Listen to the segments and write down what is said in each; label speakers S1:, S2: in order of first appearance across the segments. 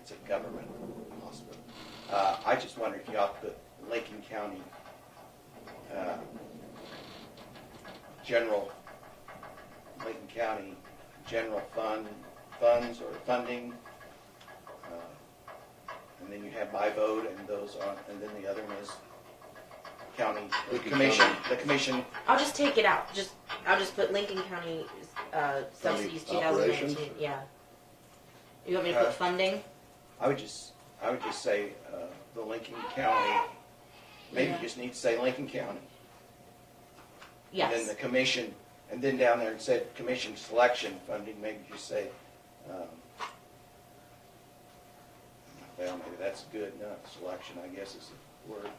S1: it's a government hospital. Uh, I just wondered if y'all put Lincoln County, uh, general, Lincoln County general fund, funds or funding. uh, And then you have by vote and those on, and then the other one is county, the
S2: Lincoln
S1: commission,
S2: County.
S1: the commission
S3: I'll just take it out. Just I'll just put Lincoln County uh, subsidies
S2: County
S3: 2019.
S2: operations?
S3: Yeah. You want me to put
S1: Uh,
S3: funding?
S1: I would just, I would just say, uh, the Lincoln County, maybe you
S3: Yeah.
S1: just need to say Lincoln County.
S3: Yes.
S1: And then the commission, and then down there it said commission selection funding, maybe just say, um, well, maybe that's good enough, selection, I guess is the word.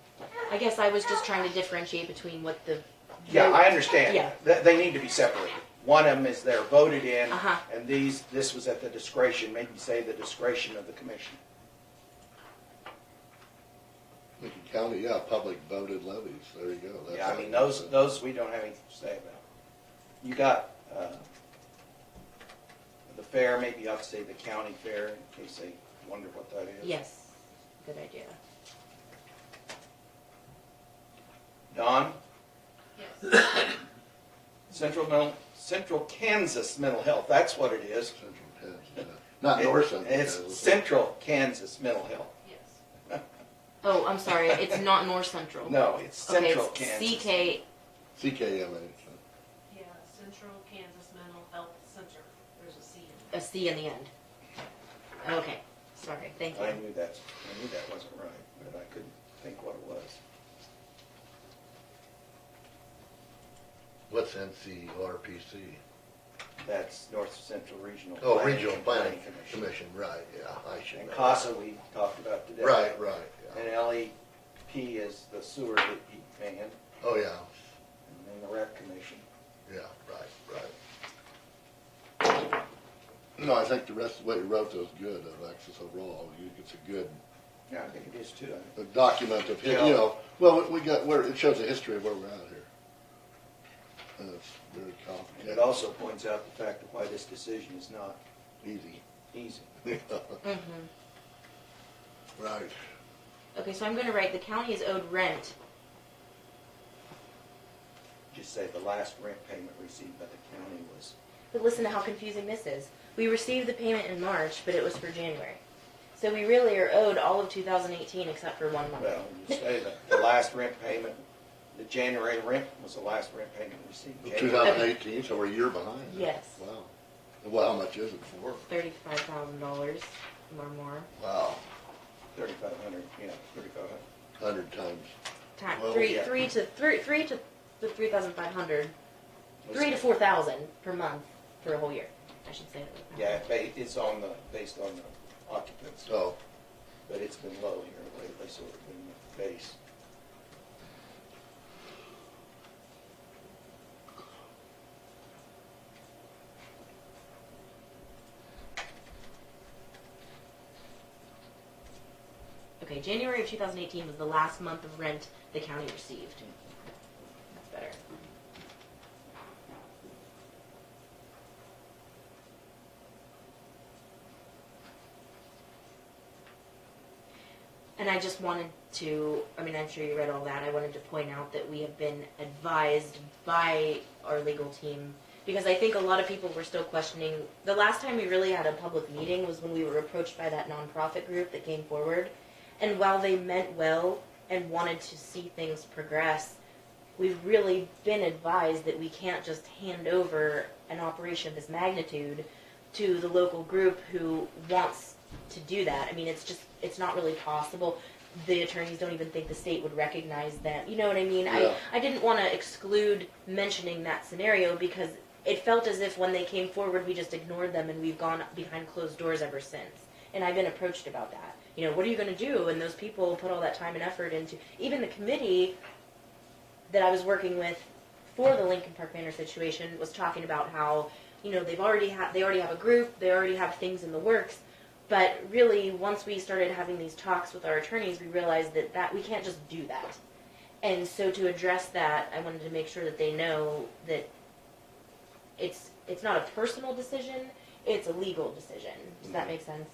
S3: I guess I was just trying to differentiate between what the
S1: Yeah, I
S3: Yeah.
S1: understand, they, they need to be separated. One of them is they're voted in,
S3: Uh-huh.
S1: and these, this was at the discretion, maybe say the discretion of the commission.
S2: Lincoln County, yeah, public voted levies, there you go. That's
S1: Yeah, I
S2: how
S1: mean,
S2: you
S1: those,
S2: do it.
S1: those we don't have anything to say about. You got, uh, the fair, maybe you ought to say the county fair, in case they wonder what that is.
S3: yes. Good idea.
S1: Don? Central mental, Central Kansas Mental Health, that's what it is.
S2: Central Kansas, yeah. Not North Central.
S1: It's
S2: Kansas.
S1: Central Kansas Mental Health.
S3: Oh, I'm sorry. It's not North Central.
S1: No, it's
S3: Okay,
S1: Central
S3: it's
S1: Kansas.
S3: CK.
S2: CKMA.
S4: Yeah, Central Kansas Mental Health Center, there's a C in it.
S3: A C in the end. Okay. Sorry. Thank you.
S1: I knew that, I knew that wasn't right, but I couldn't think what it was.
S2: What's NCRPC?
S1: That's North Central Regional.
S2: Oh,
S1: Planning
S2: Regional
S1: and
S2: Planning Commission, right, yeah, I should
S1: And
S2: know.
S1: CASA we talked about today.
S2: Right, right, yeah.
S1: And LEP is the sewer that he ran, and
S2: Oh, yeah,
S1: then the rec commission.
S2: yeah, right, right. No, I think the rest of what you wrote was good, Alexis, overall. You- It's a good
S1: Yeah, I think it is too.
S2: a document of, hi- you know, well, we- we got, where, it shows the history of where we're at here. And it's very
S1: And it
S2: complicated,
S1: also points out the fact of why this decision is not
S2: easy.
S1: easy.
S3: Mm-hmm.
S2: Right.
S3: Okay, so I'm going to write the county is owed rent.
S1: Just say the last rent payment received by the county was,
S3: But listen to how confusing this is. We received the payment in March, but it was for January. So we really are owed all of 2018 except for one month.
S1: well, you say that the last rent payment, the January rent was the last rent payment received.
S2: Two
S1: January.
S2: thousand eighteen, so we're a year behind.
S3: Yes.
S2: Wow. Well, how much is it for?
S3: $35,000 or more.
S2: Wow,
S1: Thirty-five hundred, yeah, thirty-five hundred.
S2: hundred times.
S3: Time,
S2: Well,
S3: three,
S1: yeah.
S3: three to three, three to the 3,500, three to 4,000 per month for a whole year. I should say that.
S1: Yeah, ba- it's on the, based on the occupants,
S2: Oh,
S1: but it's been low here lately, so it's been the base.
S3: Okay, January of 2018 was the last month of rent the county received. That's better. And I just wanted to, I mean, I'm sure you read all that. I wanted to point out that we have been advised by our legal team because I think a lot of people were still questioning. The last time we really had a public meeting was when we were approached by that nonprofit group that came forward. And while they meant well and wanted to see things progress, we've really been advised that we can't just hand over an operation of this magnitude to the local group who wants to do that. I mean, it's just, it's not really possible. The attorneys don't even think the state would recognize them. You know what I mean?
S2: Yeah.
S3: I, I didn't want to exclude mentioning that scenario because it felt as if when they came forward, we just ignored them and we've gone behind closed doors ever since. And I've been approached about that. You know, what are you going to do? And those people put all that time and effort into, even the committee that I was working with for the Lincoln Park Manor situation was talking about how, you know, they've already had, they already have a group, they already have things in the works. But really, once we started having these talks with our attorneys, we realized that, that we can't just do that. And so to address that, I wanted to make sure that they know that it's, it's not a personal decision, it's a legal decision. Does that make sense?